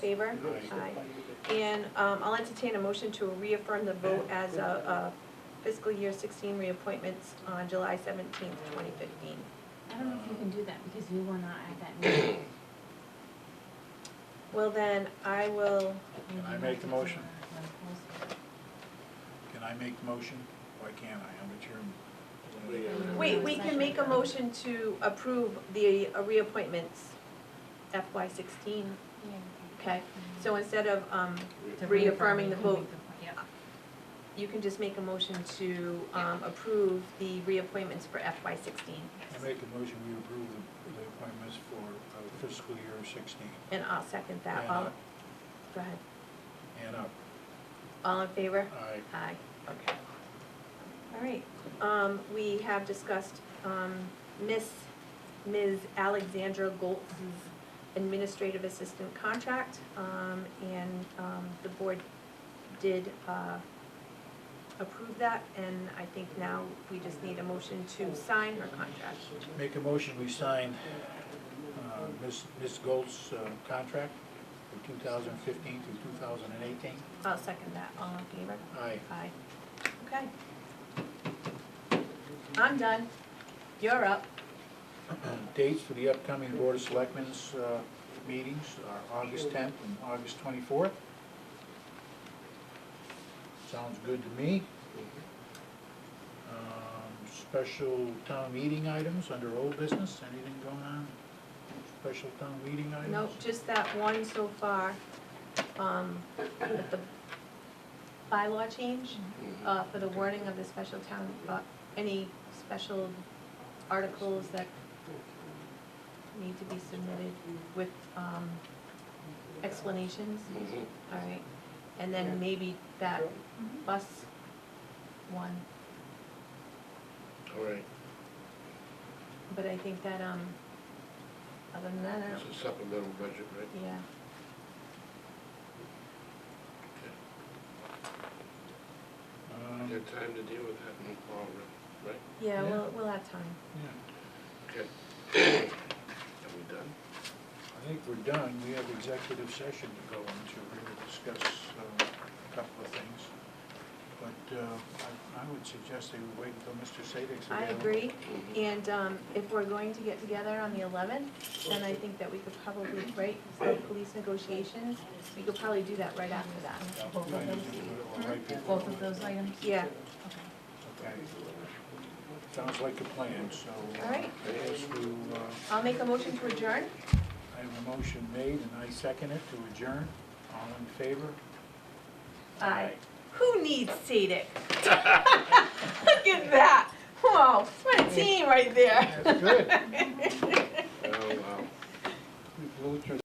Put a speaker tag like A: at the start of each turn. A: Favor? Aye. And um, I'll entertain a motion to reaffirm the vote as a a fiscal year 16 reappointments on July 17th, 2015.
B: I don't know if you can do that because you were not at that meeting.
A: Well, then, I will,
B: Maybe
C: I
B: you
C: make the
B: might
C: motion?
B: have to do
C: Can I make the motion? Why can't I? I'm the chairman.
A: wait, we can make a motion to approve the uh, reappointments FY 16, okay? So instead of, um,
B: a-
A: Reaffirming the
B: You can
A: vote.
B: make the point, yeah.
A: you can just make a motion to um, approve the reappointments for FY 16.
C: I make the motion, we approve the- the appointments for uh, fiscal year sixteen
A: And I'll second that.
C: And
A: All,
C: up.
A: go ahead.
C: and up.
A: All in favor?
C: I,
A: Aye, okay. All right, um, we have discussed, um, Miss, Ms. Alexandra Goltz's administrative assistant contract, um, and, um, the board did, uh, approve that, and I think now we just need a motion to sign her contract.
C: make a motion, we sign uh, Ms. Ms. Gold's uh, contract for two thousand fifteen through two thousand and eighteen.
A: I'll second that, all in favor?
C: Aye.
A: Aye, okay. I'm done, you're up.
C: Dates for the upcoming Board of Selectmen's uh, meetings are August 10th and August 24th. Sounds good to me. Um, Special town meeting items under old business, anything going on? Special town meeting items?
A: Nope, just that one so far, um, with the bylaw change,
D: Mm-hmm.
A: uh, for the wording of the special town, uh, any special articles that need to be submitted with, um, explanations, all right? And then maybe that bus one,
D: All right,
A: but I think that, um, other than that, I
D: it's
A: don't,
D: a supplemental budget, right?
A: yeah.
D: Okay.
C: Um,
D: You have time to deal with that in fall, right?
A: Yeah,
C: Yeah.
A: we'll, we'll have time.
C: yeah,
D: Okay. Are we done?
C: I think we're done. We have executive session to go into. We're going to discuss uh, a couple of things. But uh, I I would suggest that we wait until Mr. Sadek's
A: I
C: available.
A: agree, and um, if we're going to get together on the eleventh, then I think that we could probably, right, so police negotiations, we could probably do that right after that.
B: Both of those,
A: Hmm?
B: both of those items?
A: Yeah,
B: Okay.
C: Okay. Sounds like a plan, so. uh,
A: All right.
C: I guess we, uh,
A: I'll make a motion to adjourn.
C: I have a motion made and I second it to adjourn. All in favor?
A: Aye. Who needs SEDIC? Look at that, whoa, what a team right there.
C: That's good.
D: um,